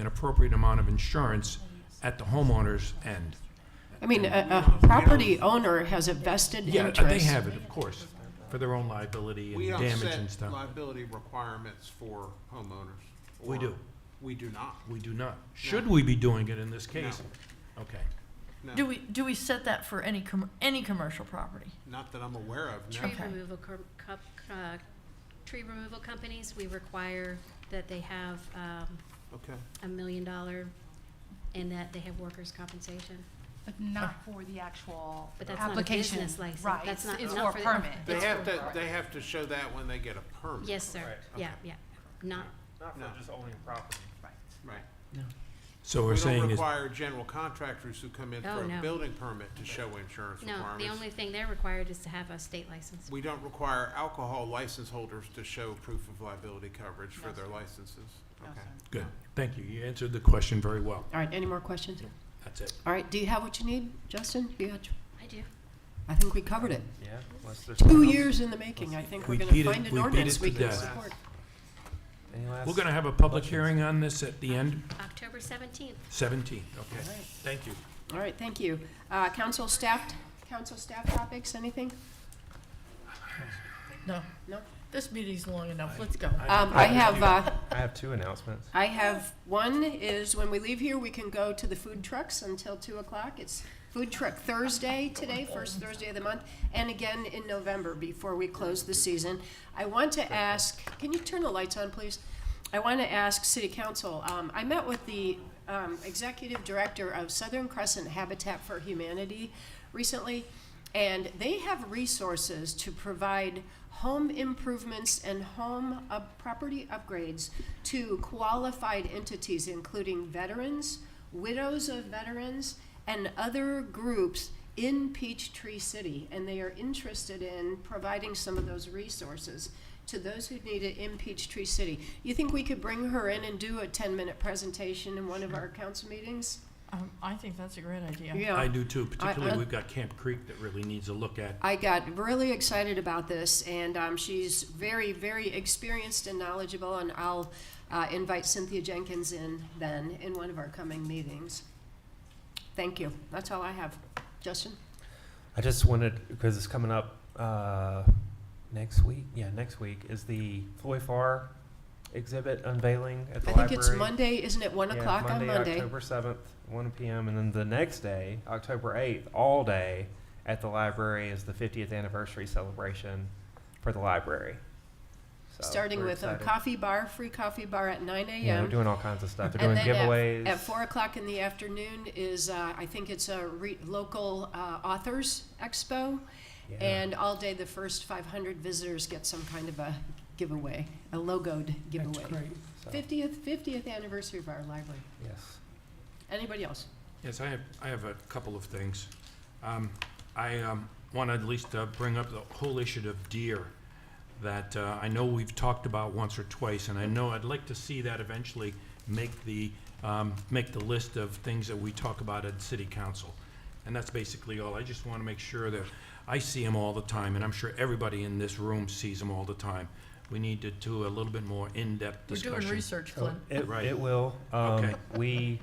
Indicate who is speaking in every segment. Speaker 1: an appropriate amount of insurance at the homeowner's end.
Speaker 2: I mean, a, a property owner has a vested
Speaker 1: Yeah,
Speaker 2: interest.
Speaker 1: they have it, of course, for their own liability
Speaker 3: We
Speaker 1: and
Speaker 3: don't
Speaker 1: damage and
Speaker 3: set
Speaker 1: stuff.
Speaker 3: liability requirements for homeowners.
Speaker 1: We
Speaker 3: or-
Speaker 1: do.
Speaker 3: We do not.
Speaker 1: We do not. Should we be doing it in this case? Okay.
Speaker 3: No,
Speaker 4: Do we, do we set that for any, com- any commercial property?
Speaker 3: not that I'm aware of, no.
Speaker 5: Tree
Speaker 4: Okay.
Speaker 5: removal, com- cup- uh, tree removal companies, we require that they have um,
Speaker 3: Okay.
Speaker 5: a million dollar and that they have workers' compensation.
Speaker 6: But not for the actual
Speaker 5: But that's not a
Speaker 6: application.
Speaker 5: business license.
Speaker 6: Right,
Speaker 5: That's
Speaker 6: it's,
Speaker 5: not-
Speaker 6: it's
Speaker 5: not
Speaker 6: for
Speaker 5: for
Speaker 6: a
Speaker 5: the-
Speaker 6: permit.
Speaker 3: They
Speaker 6: It's
Speaker 3: have
Speaker 6: for a
Speaker 3: to,
Speaker 6: permit.
Speaker 3: they have to show that when they get a permit.
Speaker 5: Yes, sir. Yeah, yeah. Not,
Speaker 7: Not for
Speaker 3: No.
Speaker 7: just owning property.
Speaker 3: Right.
Speaker 1: So we're
Speaker 3: We
Speaker 1: saying
Speaker 3: don't
Speaker 1: is,
Speaker 3: require general contractors who come in
Speaker 5: Oh,
Speaker 3: for a
Speaker 5: no.
Speaker 3: building permit to show insurance
Speaker 5: no,
Speaker 3: requirements.
Speaker 5: the only thing they're required is to have a state license.
Speaker 3: We don't require alcohol license holders to show proof of liability coverage for their licenses.
Speaker 6: No,
Speaker 3: Okay.
Speaker 6: sir.
Speaker 1: good, thank you. You answered the question very well.
Speaker 2: All right, any more questions?
Speaker 1: That's it.
Speaker 2: All right, do you have what you need, Justin? You got,
Speaker 5: I do.
Speaker 2: I think we covered it.
Speaker 7: Yeah. unless there's
Speaker 2: Two
Speaker 7: something else.
Speaker 2: years in the making, I think
Speaker 1: We
Speaker 2: we're
Speaker 1: beat
Speaker 2: gonna
Speaker 1: it-
Speaker 2: find
Speaker 1: we beat
Speaker 2: an
Speaker 1: it
Speaker 2: ordinance
Speaker 1: to
Speaker 2: we can
Speaker 1: death.
Speaker 2: support.
Speaker 7: Any last?
Speaker 1: We're gonna have a public
Speaker 7: Questions?
Speaker 1: hearing on this at the end,
Speaker 5: October 17th.
Speaker 1: seventeen, okay?
Speaker 2: All right.
Speaker 1: Thank you.
Speaker 2: All right, thank you. Uh, council staff, council staff topics, anything?
Speaker 4: No.
Speaker 2: No?
Speaker 4: This meeting's long enough, let's go.
Speaker 2: Um, I have, uh,
Speaker 7: I have two announcements.
Speaker 2: I have, one is when we leave here, we can go to the food trucks until two o'clock. It's Food Truck Thursday today, first Thursday of the month, and again in November before we close the season. I want to ask, can you turn the lights on, please? I want to ask City Council, um, I met with the, um, Executive Director of Southern Crescent Habitat for Humanity recently, and they have resources to provide home improvements and home up, property upgrades to qualified entities, including veterans, widows of veterans, and other groups in Peachtree City, and they are interested in providing some of those resources to those who need it in Peachtree City. You think we could bring her in and do a ten-minute presentation in one of our council meetings?
Speaker 4: Um, I think that's a great idea.
Speaker 1: I do too,
Speaker 2: I-
Speaker 1: particularly we've got Camp Creek that really needs a look at.
Speaker 2: I got really excited about this, and um, she's very, very experienced and knowledgeable, and I'll uh, invite Cynthia Jenkins in then in one of our coming meetings. Thank you. That's all I have. Justin?
Speaker 7: I just wanted, because it's coming up, uh, next week, yeah, next week, is the Floyd Farr exhibit unveiling at the
Speaker 2: I
Speaker 7: library.
Speaker 2: think it's Monday, isn't it? One
Speaker 7: Yeah,
Speaker 2: o'clock on Monday.
Speaker 7: October seventh, one PM, and then the next day, October eighth, all day at the library is the fiftieth anniversary celebration for the library. So
Speaker 2: Starting
Speaker 7: we're
Speaker 2: with a
Speaker 7: excited.
Speaker 2: coffee bar, free coffee bar at nine
Speaker 7: Yeah,
Speaker 2: AM.
Speaker 7: they're doing all kinds of stuff. They're
Speaker 2: And
Speaker 7: doing
Speaker 2: then at-
Speaker 7: giveaways.
Speaker 2: At four o'clock in the afternoon is, uh, I think it's a re- local uh, authors expo.
Speaker 7: Yeah.
Speaker 2: And all day, the first five hundred visitors get some kind of a giveaway, a logoed giveaway.
Speaker 7: so,
Speaker 2: Fiftieth, fiftieth anniversary of our library.
Speaker 7: yes.
Speaker 2: Anybody else?
Speaker 1: Yes, I have, I have a couple of things. Um, I want to at least uh, bring up the whole issue of deer that uh, I know we've talked about once or twice, and I know I'd like to see that eventually make the, um, make the list of things that we talk about at city council. And that's basically all. I just want to make sure that I see them all the time, and I'm sure everybody in this room sees them all the time. We need to do a little bit more in-depth
Speaker 4: We're
Speaker 1: discussion.
Speaker 4: doing research,
Speaker 1: Oh,
Speaker 4: Flynn.
Speaker 7: Oh, It,
Speaker 1: Right.
Speaker 7: it will. Um,
Speaker 1: Okay.
Speaker 7: We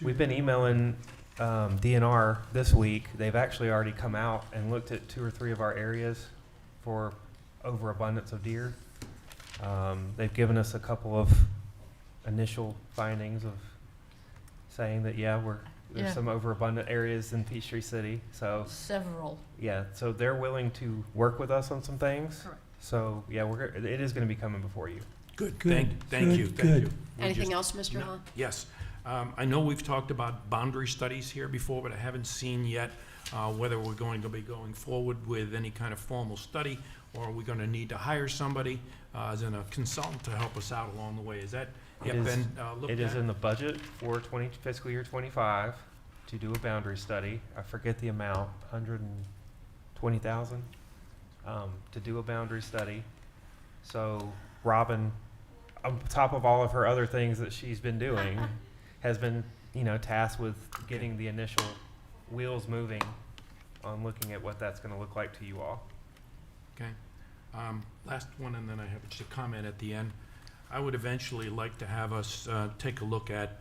Speaker 7: we've been emailing um, DNR this week. They've actually already come out and looked at two or three of our areas for overabundance of deer. Um, they've given us a couple of initial findings of saying that yeah, we're there's
Speaker 4: Yeah.
Speaker 7: some overabundant areas in Peachtree City. So
Speaker 4: Several.
Speaker 7: yeah, so they're willing to work with us on some things.
Speaker 4: Correct.
Speaker 7: So yeah, we're it is going to be coming before you.
Speaker 1: Good,
Speaker 8: Good,
Speaker 1: thank, thank you,
Speaker 8: good,
Speaker 1: thank you.
Speaker 8: good.
Speaker 1: We just-
Speaker 2: Anything else, Mr.
Speaker 1: No.
Speaker 2: Hall?
Speaker 1: Yes. Um, I know we've talked about boundary studies here before, but I haven't seen yet uh, whether we're going to be going forward with any kind of formal study, or are we going to need to hire somebody uh, as in a consultant to help us out along the way? Is that
Speaker 7: It
Speaker 1: yet
Speaker 7: is-
Speaker 1: been uh, looked at?
Speaker 7: It is in the budget for twenty, fiscal year twenty-five, to do a boundary study. I forget the amount, hundred and twenty thousand, um, to do a boundary study. So Robin, on top of all of her other things that she's been doing, has been, you know, tasked with getting the initial wheels moving on looking at what that's gonna look like to you all.
Speaker 1: Okay. Um, Last one, and then I have just a comment at the end. I would eventually like to have us uh, take a look at